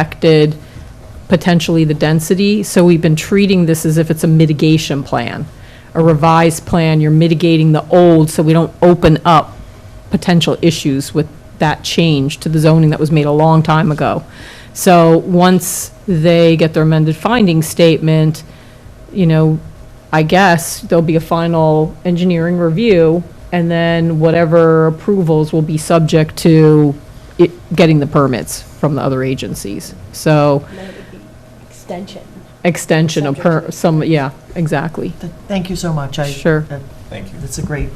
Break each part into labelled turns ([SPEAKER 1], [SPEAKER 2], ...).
[SPEAKER 1] affected potentially the density. So we've been treating this as if it's a mitigation plan, a revised plan. You're mitigating the old so we don't open up potential issues with that change to the zoning that was made a long time ago. So once they get their amended finding statement, you know, I guess there'll be a final engineering review, and then whatever approvals will be subject to it, getting the permits from the other agencies. So,
[SPEAKER 2] And then it would be extension.
[SPEAKER 1] extension of per,
[SPEAKER 2] Subject to-
[SPEAKER 1] some, yeah, exactly.
[SPEAKER 3] Th- Thank you so much. I-
[SPEAKER 1] Sure.
[SPEAKER 3] that-
[SPEAKER 4] Thank you.
[SPEAKER 3] That's a great,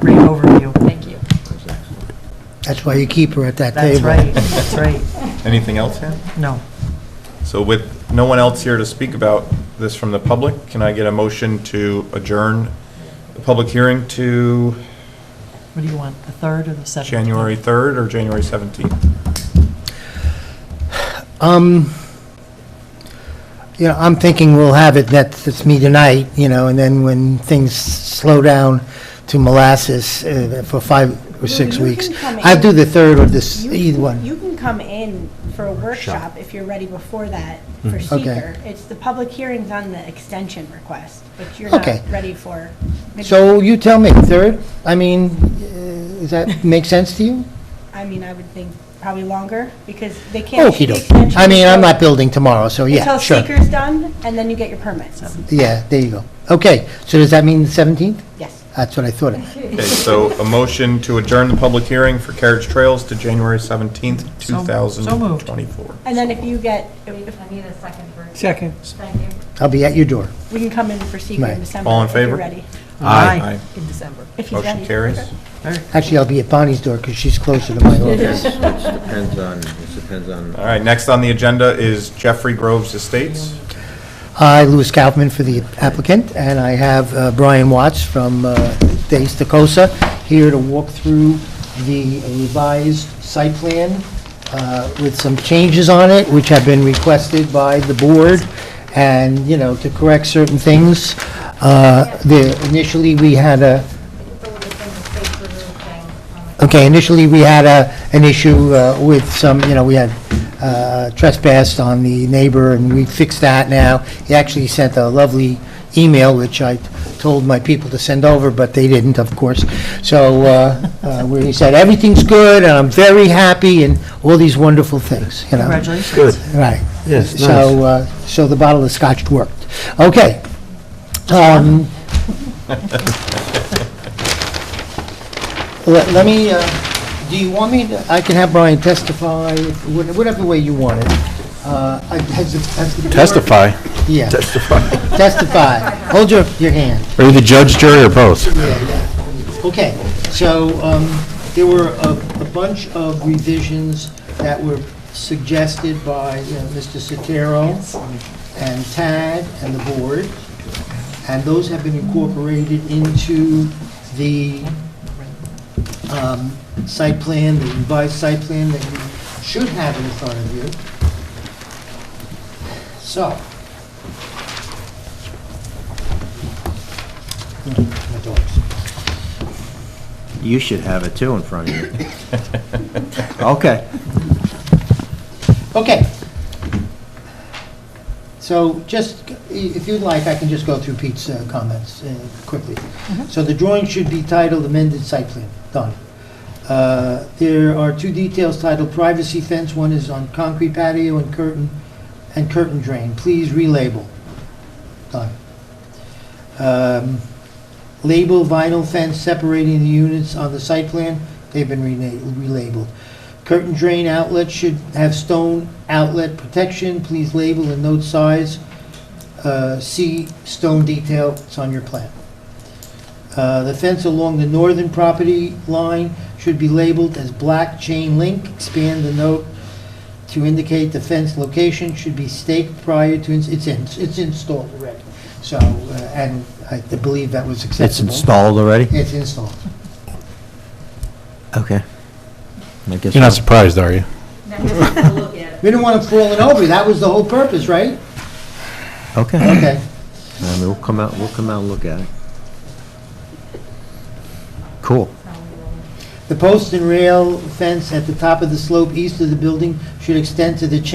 [SPEAKER 3] great overview.
[SPEAKER 2] Thank you.
[SPEAKER 5] That's why you keep her at that table.
[SPEAKER 3] That's right, that's right.
[SPEAKER 4] Anything else, Ann?
[SPEAKER 3] No.
[SPEAKER 4] So with no one else here to speak about this from the public, can I get a motion to adjourn the public hearing to
[SPEAKER 3] What do you want, the 3rd or the 7th?
[SPEAKER 4] January 3rd or January 17th?
[SPEAKER 5] Um, you know, I'm thinking we'll have it, that's, it's me tonight, you know, and then when things slow down to molasses uh, for five or six
[SPEAKER 6] you
[SPEAKER 5] weeks.
[SPEAKER 6] can come
[SPEAKER 5] I'll do
[SPEAKER 6] in.
[SPEAKER 5] the third or this,
[SPEAKER 6] You
[SPEAKER 5] either
[SPEAKER 6] can-
[SPEAKER 5] one.
[SPEAKER 6] You can come in for a workshop if you're ready before that
[SPEAKER 4] Mm-hmm.
[SPEAKER 6] for seeker. It's the public hearings on the extension request, but you're not
[SPEAKER 5] Okay.
[SPEAKER 6] ready for.
[SPEAKER 5] So you tell me, third? I mean, uh, does that make sense to you?
[SPEAKER 6] I mean, I would think probably longer because they can't. shoot the
[SPEAKER 5] Okey-dokey.
[SPEAKER 6] extension
[SPEAKER 5] I mean, I'm
[SPEAKER 6] until-
[SPEAKER 5] not building tomorrow, so yeah, sure.
[SPEAKER 6] Until seeker's done and then you get your permits.
[SPEAKER 5] Yeah, there you go. Okay, so does that mean the 17th?
[SPEAKER 6] Yes.
[SPEAKER 5] That's what I thought. of.
[SPEAKER 4] Okay, so a motion to adjourn the public hearing for carriage trails to January 17th,
[SPEAKER 3] So- so moved.
[SPEAKER 4] 2024.
[SPEAKER 6] And then if you get, if-
[SPEAKER 7] I need a second for.
[SPEAKER 8] Second.
[SPEAKER 7] Thank you.
[SPEAKER 5] I'll be at your door.
[SPEAKER 6] we can come in for seeker
[SPEAKER 5] Right.
[SPEAKER 6] in December.
[SPEAKER 4] All in
[SPEAKER 6] if you're
[SPEAKER 4] favor?
[SPEAKER 6] ready.
[SPEAKER 3] Aye.
[SPEAKER 1] In December.
[SPEAKER 6] If he's ready.
[SPEAKER 4] Motion carries.
[SPEAKER 5] Actually, I'll be at Bonnie's door because she's closer to my office.
[SPEAKER 9] Depends on, it depends on.
[SPEAKER 4] All right, next on the agenda is Jeffrey Groves Estates.
[SPEAKER 5] Hi, Louis Kaufman for the applicant, and I have uh, Brian Watts from uh, Days Tacosa here to walk through the revised site plan uh, with some changes on it, which have been requested by the board, and, you know, to correct certain things. Uh, the- Initially, we had a,
[SPEAKER 7] um,
[SPEAKER 5] Okay, initially, we had a, an issue uh, with some, you know, we had uh, trespassed on the neighbor, and we fixed that now. He actually sent a lovely email, which I told my people to send over, but they didn't, of course. So, uh, uh, where he said, "Everything's good, and I'm very happy," and all these wonderful things, you know?
[SPEAKER 3] Congratulations.
[SPEAKER 5] Right.
[SPEAKER 8] Yes,
[SPEAKER 5] So, uh, so the bottle of scotch worked. Okay. Um, Let let me, uh, do you want me, to- I can have Brian testify, wha- whatever way you want it. Uh, I- has the- has the board- Yeah,
[SPEAKER 8] Testify.
[SPEAKER 5] testify. Hold your, your hand.
[SPEAKER 8] Are you the judge, jury, or both?
[SPEAKER 5] Okay, so um, there were a a bunch of revisions that were suggested by you know, Mr. Sotero and Tad and the board, and those have been incorporated into the um, site plan, the revised site plan that you should have in front of you. So. Hmm, My dogs.
[SPEAKER 9] You should have it too in front of you. Okay.
[SPEAKER 5] Okay. So just, if you'd like, I can just go through Pete's uh, comments uh, quickly. So the drawing should be titled amended site plan, done. Uh, There are two details titled privacy fence, one is on concrete patio and curtain, and curtain drain, please relabel, done. Um, Label vinyl fence separating the units on the site plan, they've been rena- relabeled. Curtain drain outlet should have stone outlet protection. Please label and note size. Uh, See stone detail, it's on your plan. Uh, The fence along the northern property line should be labeled as black chain link. Expand the note to indicate the fence location should be staked prior to, ins- it's in, it's installed already. So, uh, and I believe that was
[SPEAKER 9] It's
[SPEAKER 5] acceptable.
[SPEAKER 9] installed already?
[SPEAKER 5] It's installed.
[SPEAKER 9] Okay. I guess
[SPEAKER 8] You're not
[SPEAKER 9] so.
[SPEAKER 8] surprised, are you?
[SPEAKER 5] We didn't want it falling over, that was the whole purpose, right?
[SPEAKER 9] Okay.
[SPEAKER 5] Okay.
[SPEAKER 9] And we'll come out, we'll come out and look at it. Cool.
[SPEAKER 5] The post and rail fence at the top of the slope east of the building should extend to the chain